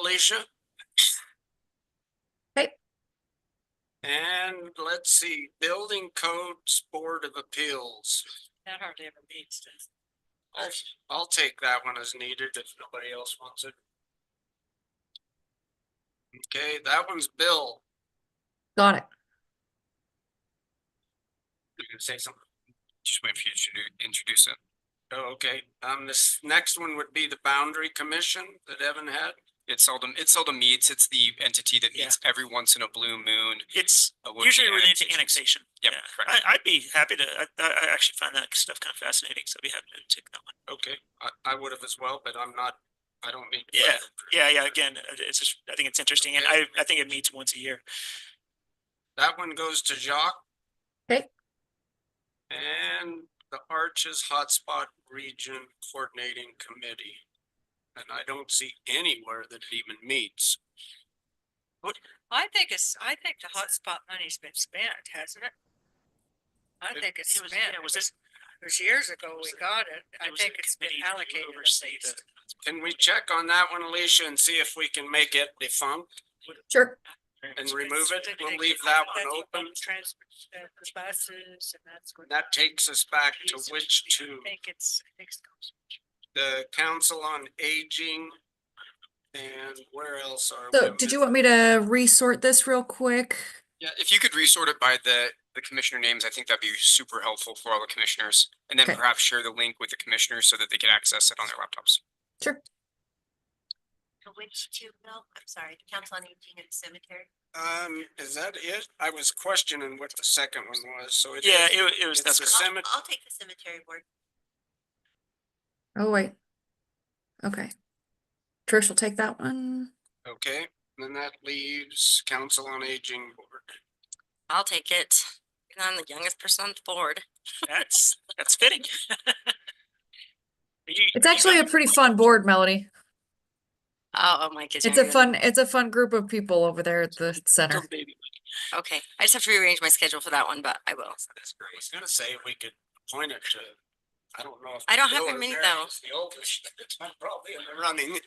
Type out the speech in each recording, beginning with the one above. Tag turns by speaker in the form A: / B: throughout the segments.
A: Alicia.
B: Okay.
A: And let's see, Building Codes Board of Appeals.
C: That hardly ever meets, does it?
A: I'll, I'll take that one as needed if nobody else wants it. Okay, that one's Bill.
B: Got it.
A: You can say something.
D: Just wait for you to introduce it.
A: Oh, okay. Um, this next one would be the Boundary Commission that Evan had.
D: It seldom, it seldom meets. It's the entity that meets every once in a blue moon.
E: It's
D: uh, would be
E: usually related to
D: annexation.
E: annexation.
D: Yep,
E: Yeah.
D: correct.
E: I, I'd be happy to, I, I I actually find that stuff kind of fascinating, so I'd be happy to take that one.
A: Okay, I, I would have as well, but I'm not, I don't need.
E: Yeah, Yeah, yeah, again, it- it's just, I think it's interesting, and I, I think it meets once a year.
A: That one goes to Jacques.
B: Okay.
A: And the Arches Hotspot Region Coordinating Committee. And I don't see anywhere that it even meets.
C: I think it's, I think the hotspot money's been spent, hasn't it? I
A: It-
C: think it's
E: It was,
C: spent.
E: yeah, was this?
C: It was years ago we
E: was a-
C: got it. I
E: it was a
C: think it's been
E: committee to
C: allocated. at
E: oversee the-
C: least.
A: Can we check on that one, Alicia, and see if we can make it defunct?
B: Sure.
A: and
C: It's
A: remove
C: been
A: it?
C: spent
A: We'll
C: like
A: leave
C: it's
A: that one
C: been spent
A: open.
C: Transfer uh, for buses and that's what.
A: That takes us back to
C: Yes,
A: which
C: I
A: two?
C: Think it's, I think it's.
A: The Council on Aging. And where else are?
B: So
A: we
B: did
A: missing?
B: you want me to resort this real quick?
D: Yeah, if you could resort it by the, the commissioner names, I think that'd be super helpful for all the commissioners. And then
B: Okay.
D: perhaps share the link with the commissioners so that they can access it on their laptops.
B: Sure.
F: Which two, Bill? I'm sorry, the Council on Aging and Cemetery.
A: Um, is that it? I was questioning what the second one was, so it is.
E: Yeah, it, wa- it was,
A: It's
E: that's
A: the
E: correct.
F: I'll-
A: cemet-
F: I'll take the cemetery board.
B: Oh, wait. Okay. Trish will take that one.
A: Okay, then that leaves Council on Aging Board.
G: I'll take it. And I'm the youngest person on the board.
E: that's, that's fitting. You-
B: It's
E: you
B: actually a
E: got-
B: pretty fun board, Melody.
G: Oh, oh my goodness.
B: It's a fun, it's a fun group of people over there at the center.
G: Okay, I just have to rearrange my schedule for that one, but I will.
A: That's great. I was gonna say we could point it to, I don't know if.
G: I don't have
A: Bill
G: that
A: or
G: many,
A: Mary
G: though.
A: is The oldest, it's not probably in the running.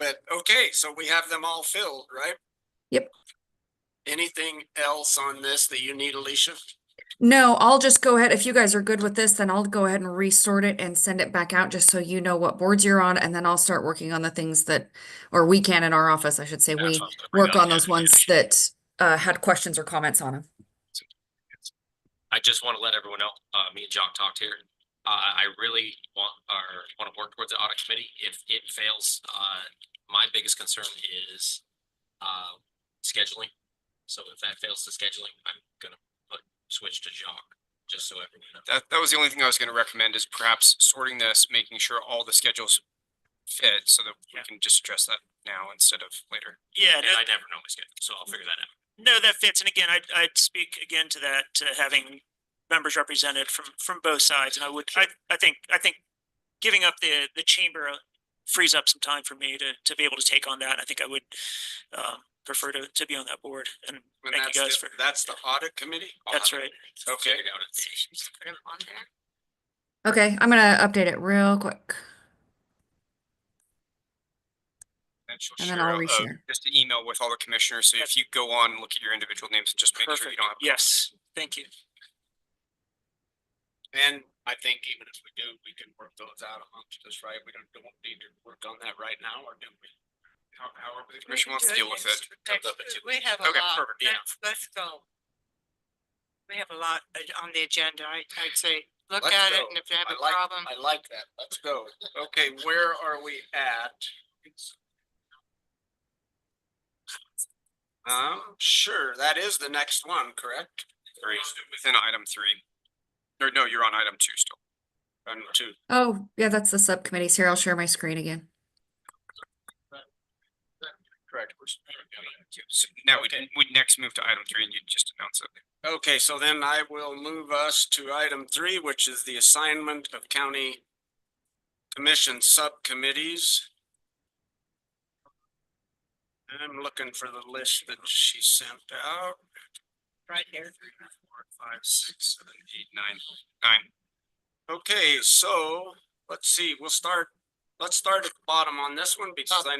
A: But, okay, so we have them all filled, right?
B: Yep.
A: Anything else on this that you need, Alicia?
B: No, I'll just go ahead. If you guys are good with this, then I'll go ahead and resort it and send it back out just so you know what boards you're on. And then I'll start working on the things that, or we can in our office, I should say, we work on those ones that uh, had questions or comments on them.
H: I just want to let everyone know, uh, me and Jock talked here. Uh, I really want, or want to work towards the audit committee. If it fails, uh, my biggest concern is, uh, scheduling. So if that fails to scheduling, I'm gonna put, switch to Jock, just so everyone knows.
D: That, that was the only thing I was gonna recommend is perhaps sorting this, making sure all the schedules fit so that we
E: Yeah.
D: can just address that now instead of later.
E: Yeah,
H: And
E: no,
H: I never know my schedule, so I'll figure that out.
E: No, that fits. And again, I'd, I'd speak again to that, to having members represented from, from both sides. And I would, I, I think, I think giving up the, the chamber uh, frees up some time for me to, to be able to take on that. And I think I would, um, prefer to, to be on that board and
A: And
E: thank you
A: that's
E: guys
A: the-
E: for,
A: That's the audit committee?
E: that's right.
A: Okay.
H: Figured out it.
G: Just put 'em on there.
B: Okay, I'm gonna update it real quick.
D: And she'll
B: And then
D: share
B: I'll
D: a- a-
B: reshare.
D: Just an email with all the commissioners. So if you go on, and look at your individual names and just make sure you
E: Perfect.
D: don't have.
E: Yes, thank you.
A: And I think even if we do, we can work those out amongst us, right? We don't, don't need to work on that right now, or do we?
D: How- However, the commission wants to deal with it.
H: Comes up in two
C: We have a
D: Okay,
C: lot.
D: perfect, yeah.
C: Let's- Let's go. We have a lot uh, on the agenda. I, I'd say, look
A: Let's
C: at
A: go.
C: it and if you have
A: I
C: a
A: like-
C: problem.
A: I like that. Let's go. Okay, where are we at? Um, sure, that is the next one, correct?
D: Three, within item three. Or no, you're on item two still.
A: Item two.
B: Oh, yeah, that's the subcommittees here. I'll share my screen again.
A: Correct.
D: So Now we,
A: Okay.
D: we next move to item three and you just announce it.
A: Okay, so then I will move us to item three, which is the assignment of county commission subcommittees. I'm looking for the list that she sent out.
C: Right here.
D: Four, five, six, seven, eight, nine, nine.
A: Okay, so let's see, we'll start, let's start at the bottom on this one because I